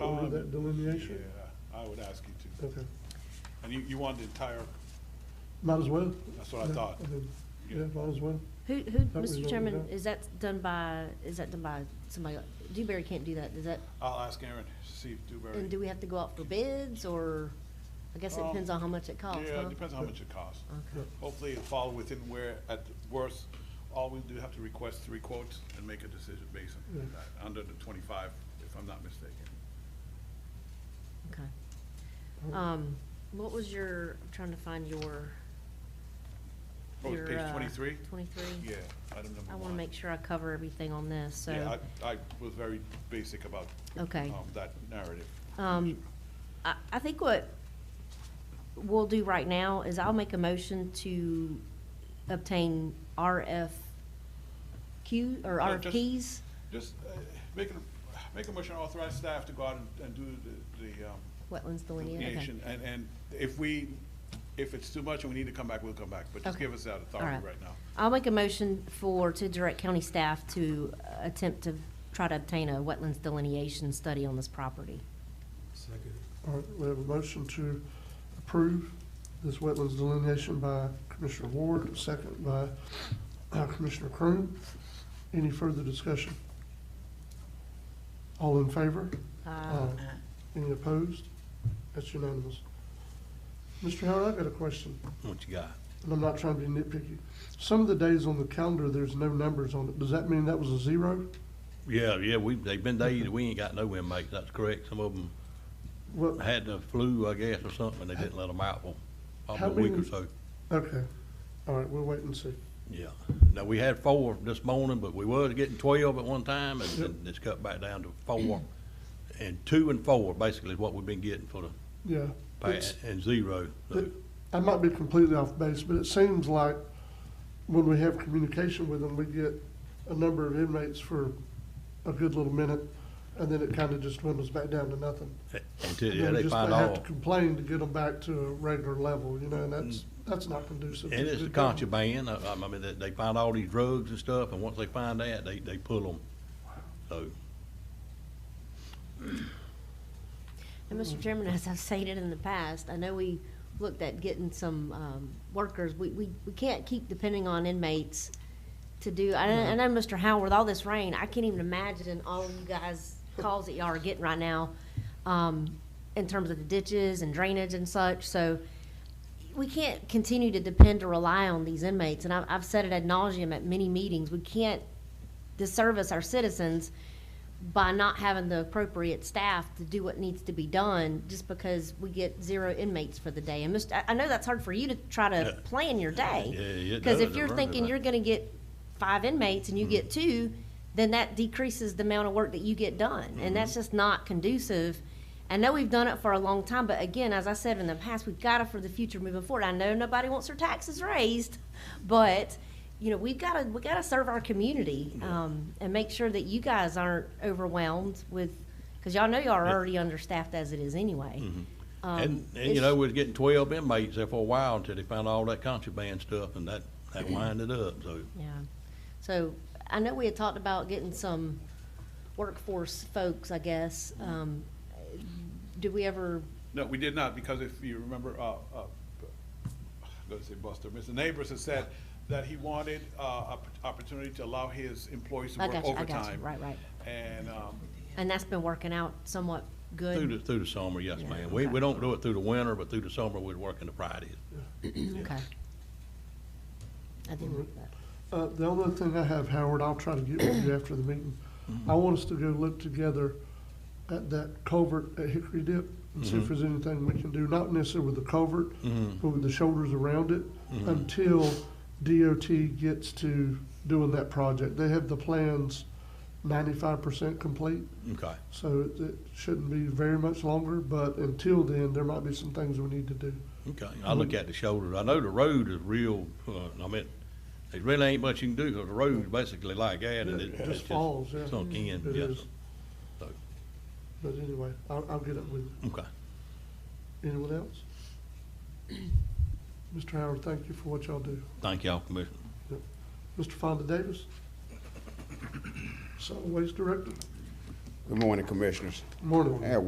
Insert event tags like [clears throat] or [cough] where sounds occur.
do that delineation? Um, Yeah, I would ask you to. Okay, And you, you want the entire, might as well. that's what I Yeah, thought. think- Yeah, might as well. Who, who, That was Mr. all Chairman, done. is that done by, is that done by somebody, like- Dewberry can't do that, is that, I'll ask Aaron, to see if Dewberry. and do we have to go out for bids, or, I guess it Um, depends on how much it costs, Yeah, huh? Uh. it depends on how much it costs. Okay. Hopefully it'll fall within where, at the worst, all we do have to request three quotes and make a decision based on Yeah. that, under the twenty-five, if I'm not mistaken. Okay. Um, what was your, I'm trying to find your, Oh, it's your, page uh, twenty-three? Twenty-three? Yeah, item number one. I wanna make sure I cover everything on this, Yeah, so, I, I was very basic about. Okay. um, That narrative. um, I, I think what we'll do right now is I'll make a motion to obtain RFQ, or No, Uh, just- RFPs. Just uh, make a, make a motion to authorize staff to go out and- and do the, the, um, Wetlands delineation, okay. delineation, and, and if we, if it's too much and we need to come back, we'll come back, but just Okay. give us that All authority right now. I'll make a motion for, to direct county staff to uh, attempt to try to obtain a wetlands delineation study on this property. Second. All right, we have a motion to approve this wetlands delineation by Commissioner Ward, second by uh, Commissioner Cronin. Any further discussion? All in favor? Uh, Any opposed? That's unanimous. Mr. Howard, I've got a question, What you got? and I'm not trying to be nitpicky. Some of the days on the calendar, there's no numbers on it. Does that mean that was a zero? Yeah, yeah, we, they've been days, that we ain't got no inmates, that's correct. Some of them What, had the flu, I guess, or something, and they didn't let them out for How probably a week or many- so. okay, all right, we'll wait and see. Yeah. Now, we had four this morning, but we was getting twelve at one time, and Yep. then it's cut back down to four. And two and four, basically, is what we've been getting for the, Yeah. pa- it's- and zero. so- it- I might be completely off base, but it seems like when we have communication with them, we get a number of inmates for a good little minute, and then it kind of just dwindles back down to nothing. eh, Until, And yeah, then we they just find have to all. complain to get them back to a regular level, you know, and that's, that's not conducive. Mm. And to it's a good government. contraband, I, I mean, they, they find all these drugs and stuff, and once they find that, they, they pull them. So, And Mr. Chairman, as I've stated in the past, I know we looked at getting some um, workers. We, we, we can't keep depending on inmates to do, I know, I know, Mr. Howard, with all this rain, I can't even imagine all of you guys' calls that y'all are getting right now um, in terms of the ditches and drainage and such, so we can't continue to depend or rely on these inmates. And I've, I've said it ad nauseum at many meetings, we can't disservice our citizens by not having the appropriate staff to do what needs to be done just because we get zero inmates for the day. And Mr., I, I know that's hard for you to try to Yeah. plan your day. Yeah, yeah, it Because if does. you're It thinking runs you're it. gonna get five inmates and you get Mm-hmm. two, then that decreases the amount of work that you get done. And Mm-hmm. that's just not conducive. I know we've done it for a long time, but again, as I said in the past, we've got to for the future moving forward. I know nobody wants their taxes raised, but, you know, we've got to, we got to serve our community, um, and make sure that you guys aren't overwhelmed with, because y'all know y'all are already understaffed as it is anyway. Um, Mm-hmm. And, and it's- you know, we was getting twelve inmates there for a while until they found all that contraband stuff and that, that winded up, so. Yeah. So I know we had talked about getting some workforce folks, I guess. Um, did we ever, No, we did not, because if you remember, uh, uh, I'm gonna say Buster, Mr. Neighbors has said that he wanted, uh, opp- opportunity to allow his employees to I work got you, I overtime. got you. Right, right. And, um, and that's been working out somewhat Through good? the, through the summer, yes, Yeah, ma'am. We, okay. we don't do it through the winter, but through the summer, we're working the Fridays. Okay. I didn't look that. Uh, the only other thing I have, Howard, I'll try to get with you after the meeting. I want us to go look together at that culvert at Hickory Dip and see if there's anything we can do, not necessarily with the culvert, but with the shoulders around it, until DOT gets to doing that project. They have the plans ninety-five percent complete, Okay. so it, it shouldn't be very much longer, but until then, there might be some things we need to do. Okay, I look Mm-hmm. at the shoulders. I know the road is real, uh, I mean, there really ain't much you can do, 'cause the road's basically like that, and It it, it's just just falls, yeah. sunk in, It yes. is. So, But anyway, I'll, I'll get it with you. okay. Anyone else? [clears throat] Mr. Howard, thank you for what y'all do. Thank y'all, Commissioner. Mr. Fonda Davis? Solid Waste Director, Good morning, Commissioners. morning. Yeah,